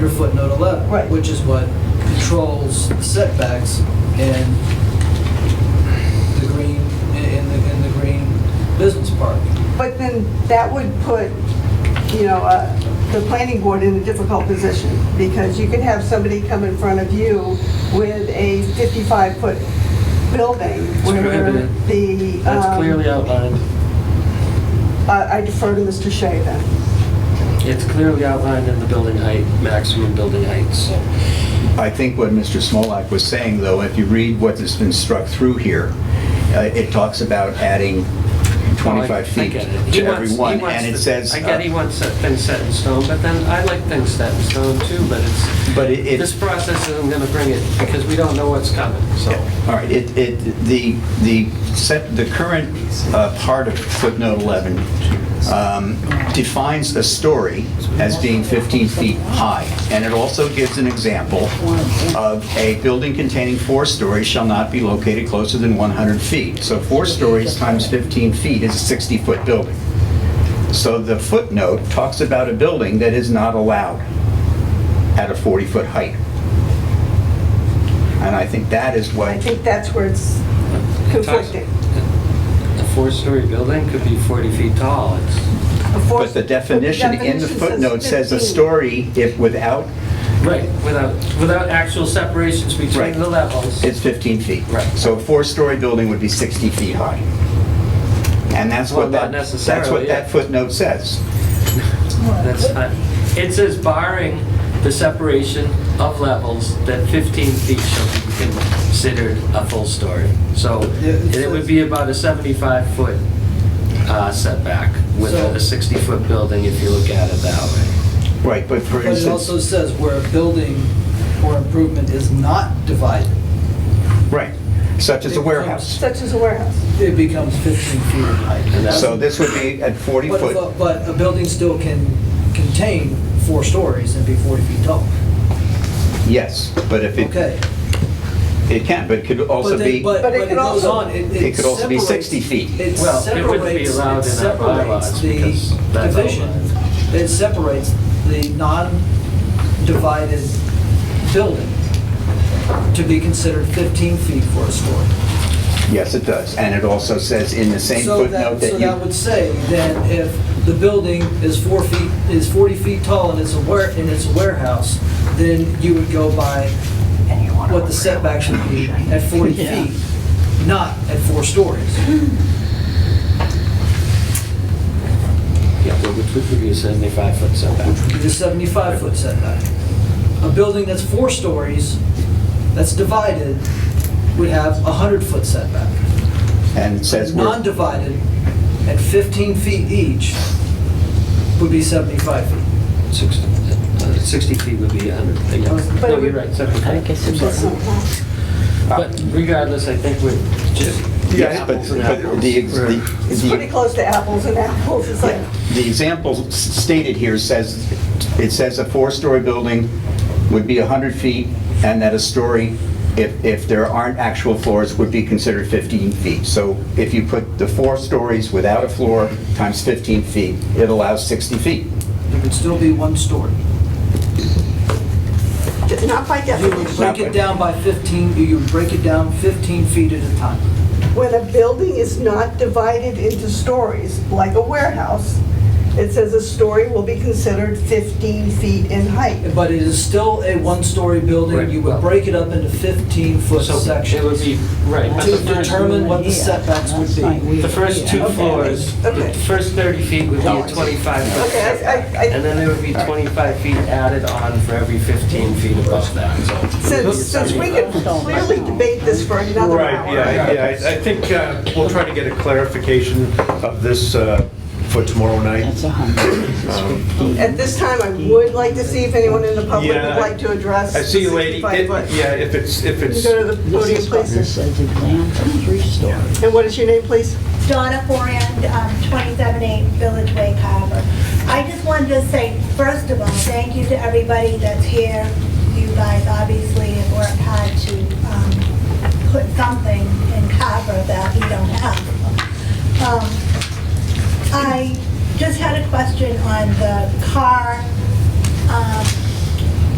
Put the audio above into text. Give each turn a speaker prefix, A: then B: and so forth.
A: your footnote 11.
B: Right.
A: Which is what controls setbacks and the green, in in the, in the green business park.
B: But then that would put, you know, uh, the planning board in a difficult position because you could have somebody come in front of you with a 55-foot building where
C: prohibited.
B: the...
C: That's
B: um,
C: clearly outlined.
B: I I defer to Mr. Shea then.
C: It's clearly outlined in the building height, maximum building heights. Oh,
D: I think what Mr. Smolak was saying, though, if you read what has been struck through here, uh, it talks about adding 25
C: Oh, I
D: feet
C: get it. He
D: to
C: wants- he
D: everyone,
C: wants
D: and it
C: the-
D: says,
C: I get he
D: uh,
C: wants set- things set in stone, but then I like things set in stone too, but it's,
D: but it-
C: this
D: it's,
C: process isn't going to bring it, because we don't know what's coming, so.
D: all right, it, it, the, the set, the current uh, part of footnote 11 um, defines a story as being 15 feet high, and it also gives an example of a building containing four stories shall not be located closer than 100 feet. So four stories times 15 feet is a 60-foot building. So the footnote talks about a building that is not allowed at a 40-foot height. And I think that is
B: I
D: what,
B: think that's where it's conflicting.
C: A four-story building could be 40 feet tall. It's-
D: but the definition in the footnote says a story if without,
C: Right, without, without actual separations between
D: Right.
C: the levels.
D: it's 15 feet.
C: Right.
D: So a four-story building would be 60 feet high. And that's
C: Well,
D: what
C: not
D: that, that's what
C: necessarily, yeah.
D: that footnote says.
C: That's not, it says barring the separation of levels, that 15 feet shall be considered a full story. So
A: Yeah, it
C: and it would be about a 75-foot setback with
A: So-
C: a 60-foot building if you look at it that way.
D: Right, but for
A: But it also
D: instance,
A: says where a building or improvement is not divided,
D: right, such as a warehouse.
B: Such as a warehouse.
A: it becomes 15 feet in
C: And
A: height.
C: that's-
D: So this would be at 40
A: But, if
D: foot.
A: a- but a building still can contain four stories and be 40 feet tall.
D: Yes, but if it,
A: Okay.
D: it can, but it could also
A: But then-
D: be,
A: But
B: But it
A: but it
B: could
A: goes
B: also-
A: on, it
D: it could also be 60
A: separates-
D: feet.
A: It
C: Well, it wouldn't be
A: separates,
C: allowed
A: it
C: in our bylaws
A: separates
C: because
A: the
C: that's
A: division.
C: outlined.
A: It separates the non-divided building to be considered 15 feet for a story.
D: Yes, it does. And it also says in the same
A: So that,
D: footnote that
A: so
D: you...
A: that would say that if the building is four feet, is 40 feet tall and it's a ware, and it's a warehouse, then you would go by what the setback should be at 40 feet, not at four stories.
C: Yeah, well, which would be a 75-foot setback.
A: the 75-foot setback. A building that's four stories, that's divided, would have a 100-foot setback.
D: And it says we're...
A: Non-divided, at 15 feet each, would be 75 feet.
C: 60 uh, 60 feet would be 100. yeah.
B: But
C: No,
B: it
C: you're
B: would-
C: right, 75. I'm sorry. But regardless, I think we're just
D: Yes, but
C: apples and
D: but
C: apples.
D: the ex-
C: We're-
D: the-
B: It's
D: the-
B: pretty close to apples and apples. It's like,
D: yeah. The example s- stated here says, it says a four-story building would be 100 feet, and that a story, if if there aren't actual floors, would be considered 15 feet. So if you put the four stories without a floor times 15 feet, it allows 60 feet.
A: There could still be one story.
B: not by
A: You would
B: definition.
A: break it down by 15, you would break it down 15 feet at a time.
B: When a building is not divided into stories, like a warehouse, it says a story will be considered 15 feet in height.
A: But it is still a one-story building,
C: Right.
A: you would break it up into 15-foot
C: So it would
A: sections
C: be, right. but
A: to
C: the first-
A: determine what the setbacks would be.
C: The first two
B: Okay.
C: floors,
B: Okay.
C: the first 30 feet would be a
B: Okay.
C: 25 foot
B: Okay, I- I-
C: setback.
B: I-
C: And then there would be 25 feet added on for every 15 feet above that, so.
B: Since, since we could clearly debate this for another hour.
E: Right, yeah, yeah, I- I think uh, we'll try to get a clarification of this uh, for tomorrow night.
F: That's a hundred.
B: At this time, I would like to see if anyone in the public would
E: Yeah.
B: like to address.
E: I see you, lady,
B: the 65
E: It-
B: foot.
E: yeah, if it's, if
B: Can you
E: it's,
B: go to the
F: This
B: podium,
F: is what
B: please?
F: this says, example, three story.
B: And what is your name, please?
G: Donna Forand, um, 278 Village Way, Carver. I just wanted to say, first of all, thank you to everybody that's here. You guys obviously have worked hard to um, put something in Carver that we don't have. Um, I just had a question on the car um,